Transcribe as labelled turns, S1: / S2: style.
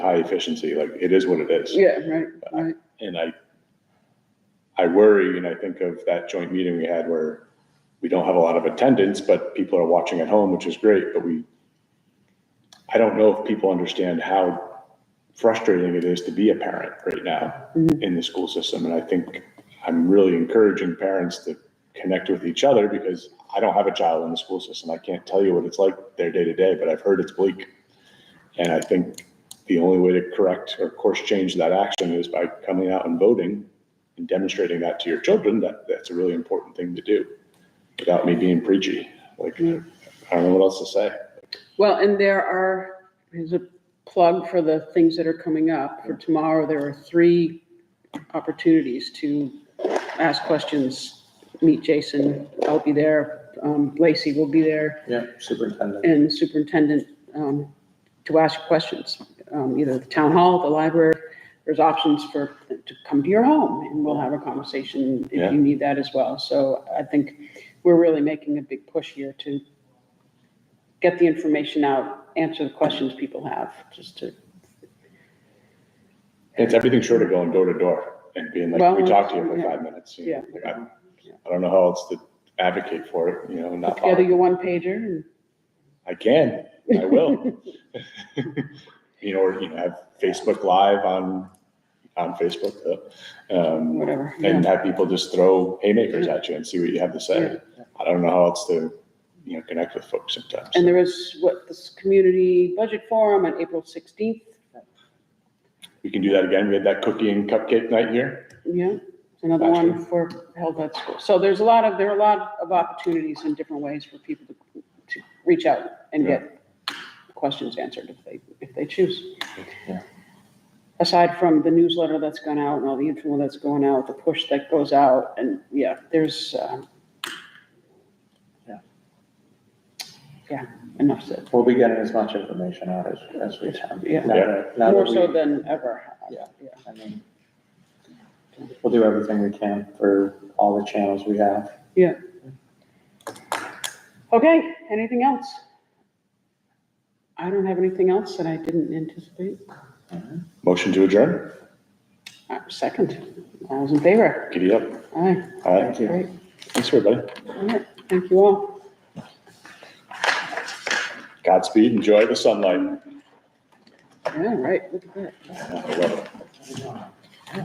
S1: high efficiency, like it is what it is.
S2: Yeah, right, right.
S1: And I, I worry, and I think of that joint meeting we had where we don't have a lot of attendance, but people are watching at home, which is great, but we, I don't know if people understand how frustrating it is to be a parent right now
S2: Mhm.
S1: in the school system. And I think I'm really encouraging parents to connect with each other because I don't have a child in the school system. I can't tell you what it's like their day to day, but I've heard it's bleak. And I think the only way to correct or course change that action is by coming out and voting and demonstrating that to your children that that's a really important thing to do without me being preachy. Like, I don't know what else to say.
S2: Well, and there are, here's a plug for the things that are coming up. For tomorrow, there are three opportunities to ask questions, meet Jason, I'll be there, um, Lacey will be there,
S3: Yeah, superintendent.
S2: and superintendent, um, to ask questions, um, either the town hall, the library. There's options for, to come to your home, and we'll have a conversation
S1: Yeah.
S2: if you need that as well. So I think we're really making a big push here to get the information out, answer the questions people have, just to,
S1: It's everything short of going door to door and being like,
S2: Well,
S1: we talked to you for
S2: yeah.
S1: five minutes. you know,
S2: Yeah.
S1: like, I I don't know how else to advocate for it, you know, and
S2: put
S1: not,
S2: together
S1: bother.
S2: your one pager and
S1: I can, I will. You know, or, you know, have Facebook Live on, on Facebook, uh, um,
S2: whatever.
S1: and
S2: yeah.
S1: have people just throw haymakers at you and see what you have to say. I don't know how else to, you know, connect with folks sometimes.
S2: And there is, what, this community budget forum on April 16th,
S1: We can do that again. We had that cookie and cupcake night here.
S2: yeah, it's another
S1: Gotcha.
S2: one for held at school. So there's a lot of, there are a lot of opportunities in different ways for people to, to reach out and get questions answered if they, if they choose.
S3: Yeah.
S2: Aside from the newsletter that's gone out and all the info that's going out, the push that goes out, and yeah, there's, um,
S3: Yeah.
S2: yeah, enough said.
S3: We'll be getting as much information out as, as we can.
S2: Yeah.
S3: Now
S1: Yeah.
S3: that- now that
S2: More so
S3: we-
S2: than ever.
S3: Yeah. I mean, We'll do everything we can for all the channels we have.
S2: Okay, anything else? I don't have anything else that I didn't anticipate.
S1: Motion to adjourn.
S2: Uh, Second, all those in favor?
S1: Giddy up.
S2: Aye,
S1: All right.
S3: Thank you.
S2: great.
S1: Thanks, everybody.
S2: All right, thank you all.
S1: Godspeed. Enjoy the sunlight.
S2: Yeah, right, look at that.
S1: I love it.